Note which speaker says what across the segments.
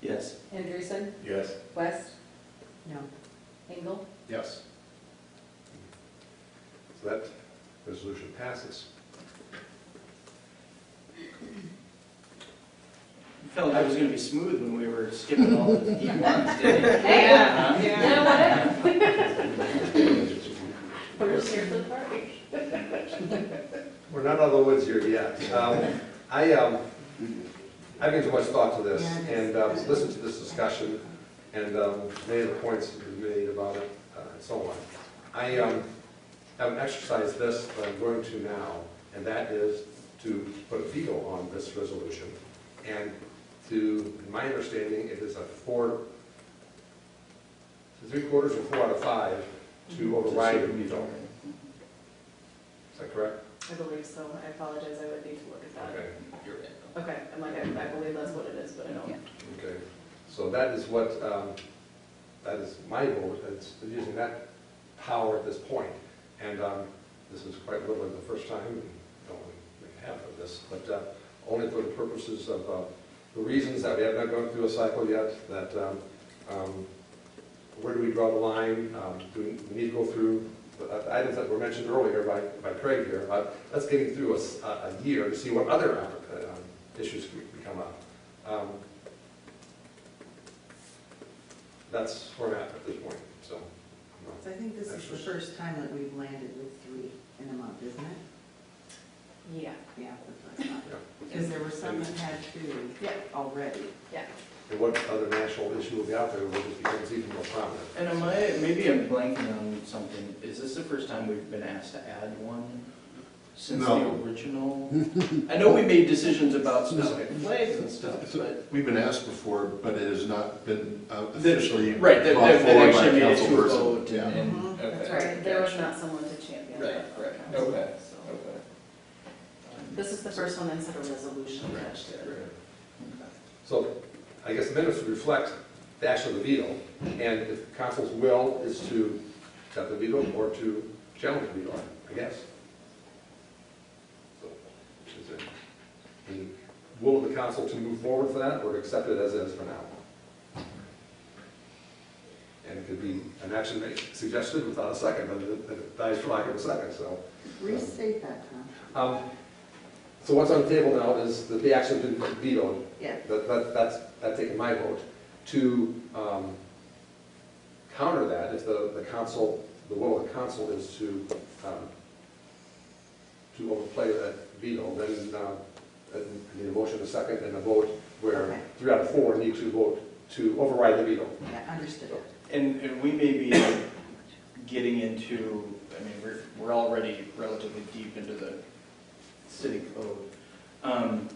Speaker 1: Yes.
Speaker 2: Andreessen?
Speaker 3: Yes.
Speaker 2: West? No. Engel?
Speaker 3: Yes. So that resolution passes.
Speaker 1: Felt like it was gonna be smooth when we were skipping all the deep ones, didn't it?
Speaker 2: Yeah. You know what? We're
Speaker 3: We're
Speaker 2: here for the party.
Speaker 3: not out of the woods here yet. Um, I, um, I gave too much thought to this and um, listened to this discussion and um, many of the points that were made about it uh, and so on. I um, have exercised this that I'm going to now, and that is to put a veto on this resolution. And to, in my understanding, it is a four, three quarters or four out of five to override the veto. Is that correct?
Speaker 4: I believe so. I apologize. I would need to look at that.
Speaker 3: Okay.
Speaker 4: Okay, I'm like, I I believe that's what it is, but I don't.
Speaker 3: Okay, so that is what, um, that is my vote, it's using that power at this point. And um, this is quite literally the first time, and don't we have of this, but uh, only for the purposes of uh, the reasons that we have not gone through a cycle yet, that um, um, where do we draw the line? Um, Do we need to go through the uh, items that were mentioned earlier by by Craig here? about Let's get through a s- a a year to see what other uh, um, issues we- we come up. Um, that's where I'm at at this point, so. I'm not-
Speaker 5: So I think this is the first time that we've landed with three in a month, isn't it?
Speaker 4: Yeah.
Speaker 5: Yeah, the first time.
Speaker 3: yeah.
Speaker 5: Because there were some that had two
Speaker 4: Yeah,
Speaker 5: already.
Speaker 4: yeah.
Speaker 3: And what other national issue will be out there, which becomes even more prominent?
Speaker 1: And am I, maybe I'm blanking on something, is this the first time we've been asked to add one since the
Speaker 6: No.
Speaker 1: original? I know we made decisions about specific flags and stuff, but,
Speaker 6: We've been asked before, but it has not been uh, officially
Speaker 1: right,
Speaker 6: brought
Speaker 1: that,
Speaker 6: forward
Speaker 1: that
Speaker 6: by
Speaker 1: that
Speaker 6: a
Speaker 1: actually made it to a
Speaker 6: councilperson.
Speaker 1: vote
Speaker 6: Yeah.
Speaker 1: and, and, okay.
Speaker 5: Mhm,
Speaker 4: Mm-hmm. That's right. There was
Speaker 1: gotcha.
Speaker 4: not someone to champion
Speaker 1: Right,
Speaker 4: that.
Speaker 1: right,
Speaker 4: on council,
Speaker 1: okay,
Speaker 4: so.
Speaker 1: okay.
Speaker 4: This is the first one that's had a resolution attached to it.
Speaker 3: So I guess the minutes reflect the action of the veto, and if council's will is to accept the veto or to challenge the veto, I guess. So, is it the will of the council to move forward for that, or to accept it as is for now? And it could be an action made- suggested without a second, but it it dies for lack of a second, so.
Speaker 5: Restate that, Tom.
Speaker 3: um, So what's on the table now is that the action to veto,
Speaker 5: Yeah.
Speaker 3: that, that, that's, that's taken my vote. To, um, counter that, if the, the council, the will of the council is to, um, to overplay that veto, then, um, I need a motion, a second, and a vote where
Speaker 5: Okay.
Speaker 3: three out of four need to vote to override the veto.
Speaker 5: Yeah, understood.
Speaker 1: And, and we may be getting into, I mean, we're, we're already relatively deep into the city code. Um,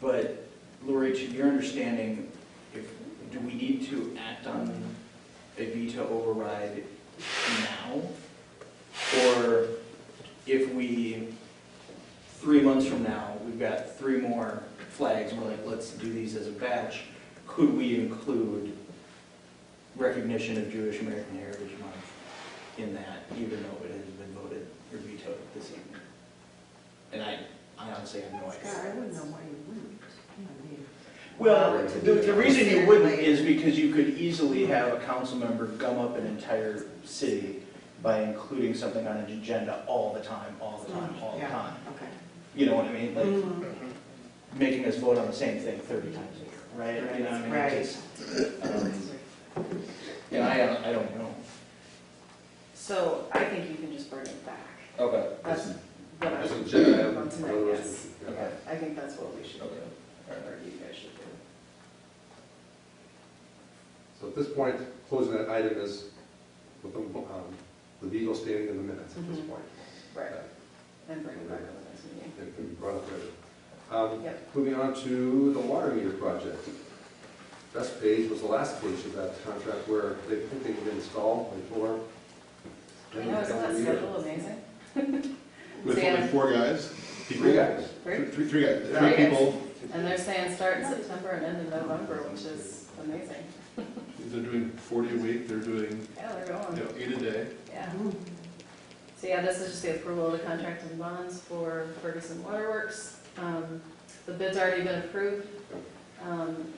Speaker 1: But Lori, to your understanding, if, do we need to act on a veto override now? Or if we, three months from now, we've got three more flags, and we're like, let's do these as a batch, could we include recognition of Jewish American Heritage Month in that, even though it has been voted or vetoed this evening. And I, I honestly have no
Speaker 5: Scott,
Speaker 1: idea.
Speaker 5: I wouldn't know why you wouldn't. I mean,
Speaker 1: Well,
Speaker 5: to
Speaker 1: the,
Speaker 5: be
Speaker 1: the reason you wouldn't
Speaker 5: considered
Speaker 1: is because you could easily have a council member gum up an entire city by including something on an agenda all the time, all the time, all the
Speaker 5: Yeah.
Speaker 1: time.
Speaker 5: like- Okay.
Speaker 1: You know what I mean? Like,
Speaker 5: Mhm.
Speaker 1: making us vote on the same thing thirty times a year, right? You know, I mean, it
Speaker 5: Right.
Speaker 1: just, um, And I, don't- I don't know.
Speaker 4: So I think you can just bring it back.
Speaker 1: Okay.
Speaker 4: That's what I
Speaker 3: Just
Speaker 4: would
Speaker 3: agenda
Speaker 4: do
Speaker 3: item,
Speaker 4: on tonight,
Speaker 3: otherwise
Speaker 4: yes.
Speaker 3: we- yeah.
Speaker 4: Yeah, I think that's what we should do,
Speaker 1: Okay.
Speaker 4: or you guys should do.
Speaker 3: So at this point, closing that item is with the, um, the veto standing in the minutes at this
Speaker 4: Mhm.
Speaker 3: point.
Speaker 4: Right, and bring it back on the next meeting.
Speaker 3: It can be brought up later. Um,
Speaker 4: Yep.
Speaker 3: Moving on to the water meter project. That page was the last page of that contract where they think they can install before.
Speaker 4: I know, isn't that schedule amazing?
Speaker 6: With
Speaker 4: Sam.
Speaker 6: only four guys? people?
Speaker 3: Three guys.
Speaker 4: Great.
Speaker 6: Three, three guys,
Speaker 4: Three
Speaker 6: three
Speaker 4: guys.
Speaker 6: people,
Speaker 4: And they're saying start in September and end in November, which is amazing.
Speaker 6: they're doing forty a week, they're doing,
Speaker 4: Yeah, they're
Speaker 6: you
Speaker 4: going,
Speaker 6: know, eight a day.
Speaker 4: yeah.
Speaker 5: Mm-hmm.
Speaker 4: So yeah, this is just the approval of the contract and bonds for Ferguson Waterworks. Um, The bid's already been approved. Um,